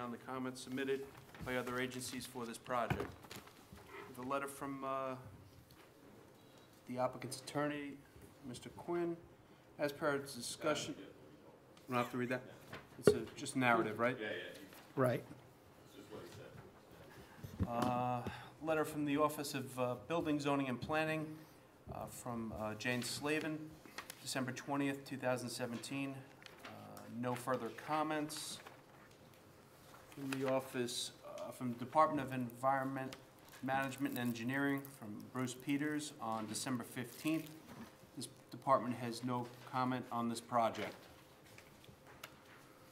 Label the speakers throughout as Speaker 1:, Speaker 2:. Speaker 1: on the comments submitted by other agencies for this project. We have a letter from uh, the applicant's attorney, Mr. Quinn. As per its discussion, we don't have to read that? It's a, just narrative, right?
Speaker 2: Right.
Speaker 1: Uh, Letter from the Office of uh, Building, Zoning, and Planning uh, from uh, Jane Slavin, December 20th, 2017. Uh, No further comments. From the office, uh, from Department of Environment Management and Engineering, from Bruce Peters on December 15th. This department has no comment on this project.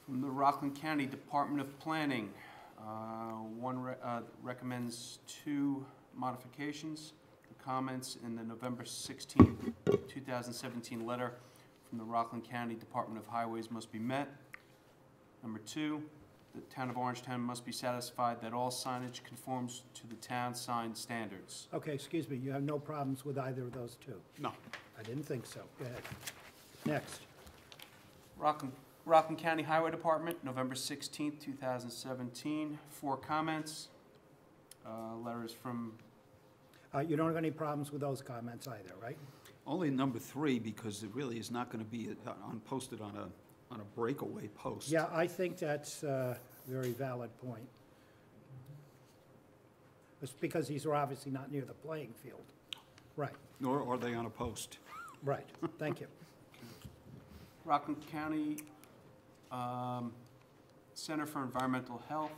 Speaker 1: From the Rockland County Department of Planning, uh, One re- uh, recommends two modifications. The comments in the November 16, 2017 letter from the Rockland County Department of Highways must be met. Number two, the town of Orangetown must be satisfied that all signage conforms to the town sign standards.
Speaker 2: Okay, excuse me, you have no problems with either of those two?
Speaker 1: No.
Speaker 2: I didn't think so. Go ahead. Next.
Speaker 1: Rockland, Rockland County Highway Department, November sixteenth, two thousand seventeen, four comments. Uh, letters from,
Speaker 2: Uh, You don't have any problems with those comments either, right?
Speaker 3: Only number three, because it really is not going to be uh, on, posted on a, on a breakaway post.
Speaker 2: Yeah, I think that's a very valid point. It's because these are obviously not near the playing field. Right,
Speaker 3: Nor are they on a post.
Speaker 2: right, thank you.
Speaker 1: Rockland County, um, Center for Environmental Health,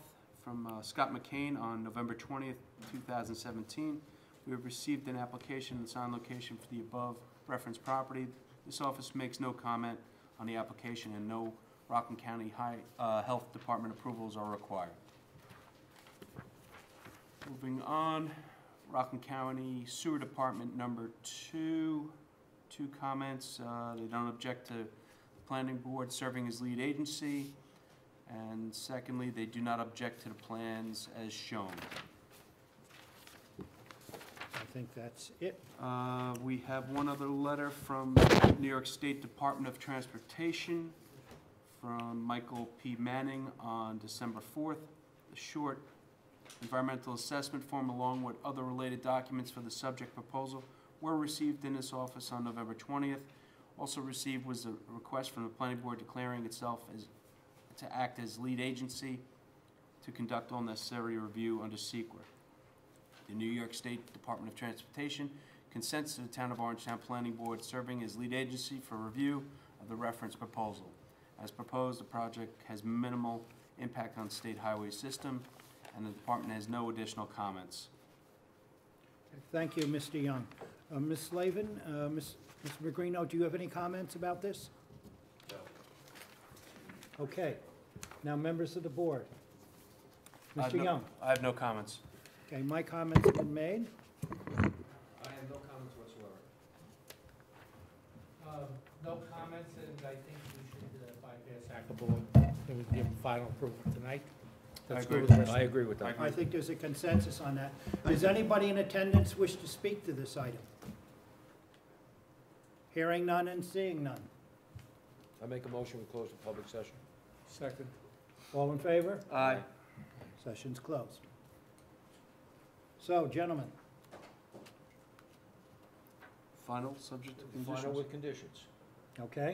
Speaker 1: from uh, Scott McCain on November twentieth, two thousand seventeen. We have received an application and sign location for the above referenced property. This office makes no comment on the application and no Rockland County High, uh, Health Department approvals are required. Moving on, Rockland County Sewer Department number two, two comments. Uh, They don't object to the planning board serving as lead agency. And secondly, they do not object to the plans as shown.
Speaker 2: I think that's it.
Speaker 1: Uh, We have one other letter from New York State Department of Transportation from Michael P. Manning on December 4th. A short environmental assessment form along with other related documents for the subject proposal were received in this office on November 20th. Also received was a request from the planning board declaring itself as, to act as lead agency to conduct all necessary review under SEQA. The New York State Department of Transportation consents to the Town of Orangetown Planning Board serving as lead agency for review of the reference proposal. As proposed, the project has minimal impact on state highway system, and the department has no additional comments.
Speaker 2: Thank you, Mr. Young. Uh, Ms. Slavin, uh, Ms. Ms. Magrino, do you have any comments about this? No. Okay. Now, members of the board.
Speaker 1: I have
Speaker 2: Mr.
Speaker 1: Uh, no-
Speaker 2: Young,
Speaker 1: I have no comments.
Speaker 2: okay, my comments have been made.
Speaker 4: I have no comments whatsoever. Um, No comments, and I think we should uh, bypass Hackleboro, and we give them final approval tonight.
Speaker 1: I
Speaker 4: That's
Speaker 1: agree
Speaker 4: good
Speaker 1: with that.
Speaker 4: I agree with that.
Speaker 2: I think there's a consensus on that. Does anybody in attendance wish to speak to this item? Hearing none and seeing none.
Speaker 4: I make a motion, we close the public session. Second.
Speaker 2: All in favor?
Speaker 1: Aye.
Speaker 2: Session's closed. So, gentlemen,
Speaker 1: Final subject to
Speaker 4: Final
Speaker 1: conditions?
Speaker 4: with conditions.
Speaker 2: okay?
Speaker 5: I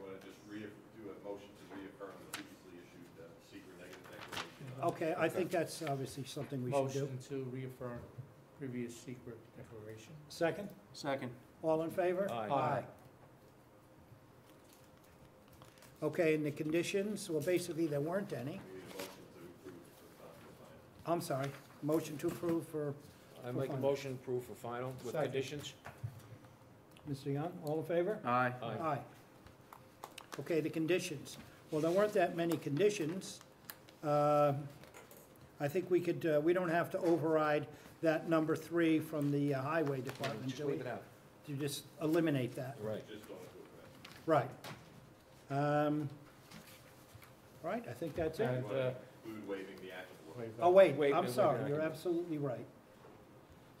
Speaker 5: want to just reaff, do a motion to reaffirm the previously issued uh, secret negative declaration.
Speaker 2: Okay, I think that's obviously something we should do.
Speaker 4: Oh, Motion to reaffirm previous secret declaration.
Speaker 2: Second?
Speaker 1: Second.
Speaker 2: All in favor?
Speaker 4: Aye.
Speaker 2: Okay, and the conditions, well, basically, there weren't any.
Speaker 5: We need a motion to approve for final.
Speaker 2: I'm sorry, motion to approve for
Speaker 4: I
Speaker 2: make a Final.
Speaker 4: motion approve for final
Speaker 2: with Second.
Speaker 4: conditions.
Speaker 2: Mr. Young, all in favor?
Speaker 1: Aye.
Speaker 2: Aye. Okay, the conditions. Well, there weren't that many conditions. Uh, I think we could, uh, we don't have to override that number three from the uh, highway department,
Speaker 4: Just
Speaker 2: do we?
Speaker 4: leave it out.
Speaker 2: To just eliminate that,
Speaker 4: Right.
Speaker 5: Just don't do it, right?
Speaker 2: right. Um, All right, I think that's it.
Speaker 4: And, uh,
Speaker 5: Include waiving the applicable.
Speaker 2: Oh, wait,
Speaker 4: Wait,
Speaker 2: I'm
Speaker 4: wait,
Speaker 2: sorry,
Speaker 4: wait.
Speaker 2: you're absolutely right.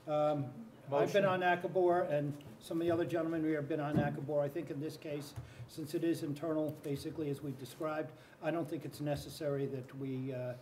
Speaker 2: Um, I've
Speaker 4: Motion.
Speaker 2: been on Akabor, and some of the other gentlemen here have been on Akabor. I think in this case, since it is internal, basically, as we've described, I don't think it's necessary that we uh,